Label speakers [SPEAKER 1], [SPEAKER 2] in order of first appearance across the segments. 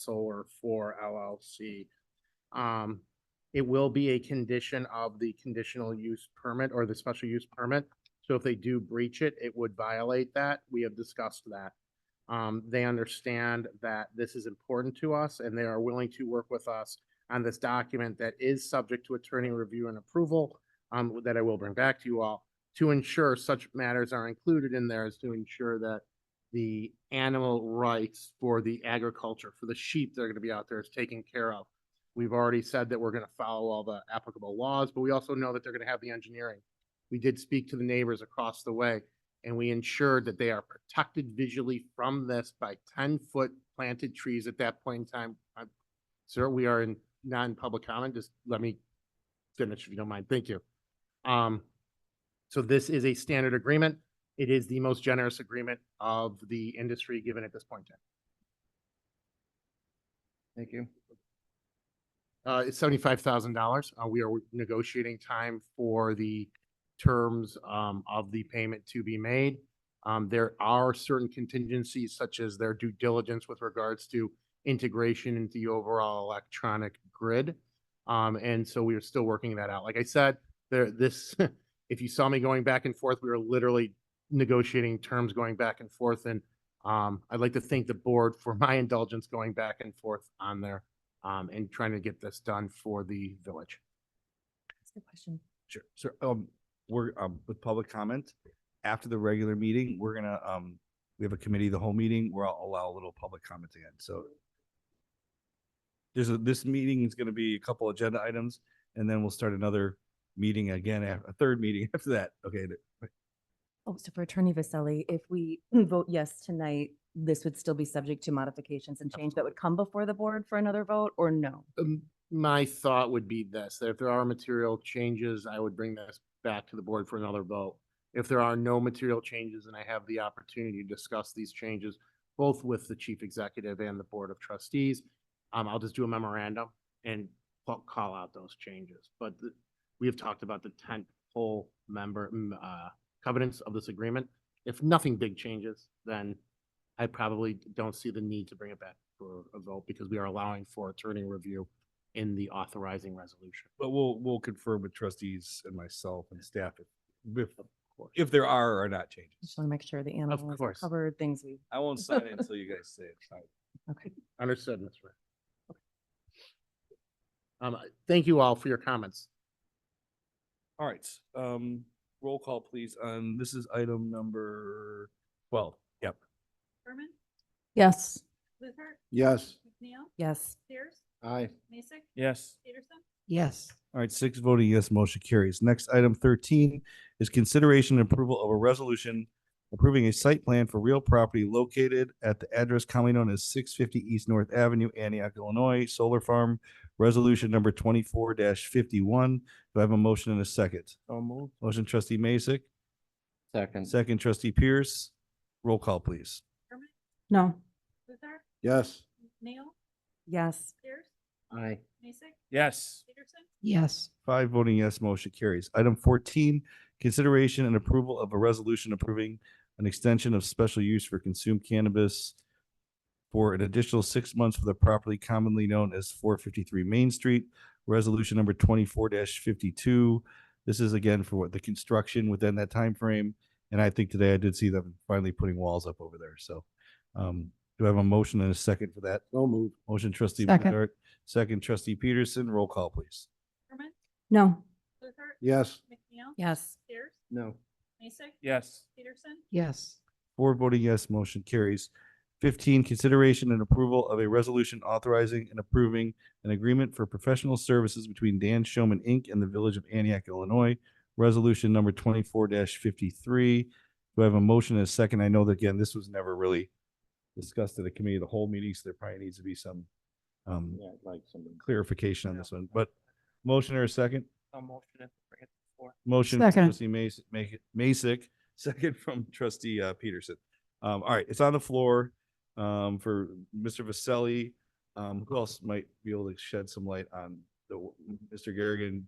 [SPEAKER 1] Solar Four LLC. Um, it will be a condition of the conditional use permit or the special use permit. So if they do breach it, it would violate that. We have discussed that. Um, they understand that this is important to us and they are willing to work with us on this document that is subject to attorney review and approval, um, that I will bring back to you all to ensure such matters are included in there is to ensure that the animal rights for the agriculture, for the sheep that are gonna be out there is taken care of. We've already said that we're gonna follow all the applicable laws, but we also know that they're gonna have the engineering. We did speak to the neighbors across the way and we ensured that they are protected visually from this by ten-foot planted trees at that point in time. I'm- Sir, we are in non-public comment. Just let me finish if you don't mind. Thank you. Um, so this is a standard agreement. It is the most generous agreement of the industry given at this point in time.
[SPEAKER 2] Thank you.
[SPEAKER 1] Uh, it's seventy-five thousand dollars. Uh, we are negotiating time for the terms, um, of the payment to be made. Um, there are certain contingencies such as their due diligence with regards to integration into the overall electronic grid. Um, and so we are still working that out. Like I said, there, this, if you saw me going back and forth, we were literally negotiating terms going back and forth. And, um, I'd like to thank the board for my indulgence going back and forth on there um, and trying to get this done for the village.
[SPEAKER 3] Ask a question.
[SPEAKER 2] Sure. So, um, we're, um, with public comment, after the regular meeting, we're gonna, um, we have a committee, of the whole meeting, where I'll allow a little public comment again, so. There's a, this meeting is gonna be a couple agenda items, and then we'll start another meeting again, af- a third meeting after that, okay? th-
[SPEAKER 3] Oh, so for Attorney Vasselli, if we vote yes tonight, this would still be subject to modifications and change that would come before the board for another vote or no?
[SPEAKER 1] Um, my thought would be this, that if there are material changes, I would bring this back to the board for another vote. If there are no material changes and I have the opportunity to discuss these changes, both with the chief executive and the board of trustees, um, I'll just do a memorandum and ca- call out those changes. But the- we have talked about the tent pole member, mm, uh, covenants of this agreement. If nothing big changes, then I probably don't see the need to bring it back for a vote because we are allowing for attorney review in the authorizing resolution.
[SPEAKER 2] But we'll, we'll confirm with trustees and myself and staff if- if, if there are or not changes.
[SPEAKER 3] Just want to make sure the animals are
[SPEAKER 1] course.
[SPEAKER 3] covered, things we,
[SPEAKER 2] I won't sign it until you guys say it. All right.
[SPEAKER 3] okay.
[SPEAKER 1] Understood, Mr. Mayor. Um, I- thank you all for your comments.
[SPEAKER 2] All right, um, roll call please. Um, this is item number twelve. Yep.
[SPEAKER 4] Berman,
[SPEAKER 3] Yes.
[SPEAKER 4] Luther,
[SPEAKER 5] Yes.
[SPEAKER 4] McNeil,
[SPEAKER 3] Yes.
[SPEAKER 4] Sears,
[SPEAKER 5] Aye.
[SPEAKER 4] Mason,
[SPEAKER 2] Yes.
[SPEAKER 4] Peterson,
[SPEAKER 3] Yes.
[SPEAKER 2] All right, six voting yes, motion carries. Next, item thirteen is consideration and approval of a resolution approving a site plan for real property located at the address commonly known as six fifty East North Avenue, Antioch, Illinois, Solar Farm, resolution number twenty-four fifty-one. Do I have a motion and a second? Motion trustee Masek,
[SPEAKER 1] Mm.
[SPEAKER 5] Second.
[SPEAKER 2] second trustee Pierce. Roll call, please.
[SPEAKER 4] Berman,
[SPEAKER 3] No.
[SPEAKER 4] Luther,
[SPEAKER 5] Yes.
[SPEAKER 4] McNeil,
[SPEAKER 3] Yes.
[SPEAKER 4] Sears,
[SPEAKER 1] Aye.
[SPEAKER 4] Mason,
[SPEAKER 5] Yes.
[SPEAKER 4] Peterson,
[SPEAKER 3] Yes.
[SPEAKER 2] Five voting yes, motion carries. Item fourteen, consideration and approval of a resolution approving an extension of special use for consumed cannabis for an additional six months for the property commonly known as four fifty-three Main Street, resolution number twenty-four fifty-two. This is again for what the construction within that time frame. And I think today I did see them finally putting walls up over there. So um, do I have a motion and a second for that?
[SPEAKER 5] So moved.
[SPEAKER 2] Motion trustee
[SPEAKER 3] Second.
[SPEAKER 2] Bedard, second trustee Peterson, roll call please.
[SPEAKER 4] Berman,
[SPEAKER 3] No.
[SPEAKER 4] Luther,
[SPEAKER 5] Yes.
[SPEAKER 4] McNeil,
[SPEAKER 3] Yes.
[SPEAKER 4] Sears,
[SPEAKER 5] No.
[SPEAKER 4] Mason,
[SPEAKER 5] Yes.
[SPEAKER 4] Peterson,
[SPEAKER 3] Yes.
[SPEAKER 2] Four voting yes, motion carries. Fifteen, consideration and approval of a resolution authorizing and approving an agreement for professional services between Dan Showman, Inc. and the Village of Antioch, Illinois. Resolution number twenty-four fifty-three. Do I have a motion and a second? I know that, again, this was never really discussed at the committee of the whole meeting, so there probably needs to be some um,
[SPEAKER 5] like something.
[SPEAKER 2] clarification on this one, but motion or a second?
[SPEAKER 5] A motion if we forget before.
[SPEAKER 2] Motion from
[SPEAKER 3] Second.
[SPEAKER 2] trustee Mas- make it Masek, second from trustee uh, Peterson. Um, all right, it's on the floor um, for Mr. Vasselli. Um, who else might be able to shed some light on the Mr. Garrigan,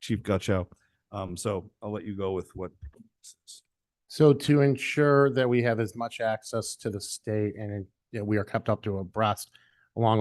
[SPEAKER 2] Chief Gutchow? Um, so I'll let you go with what.
[SPEAKER 1] So to ensure that we have as much access to the state and that we are kept up to abreast along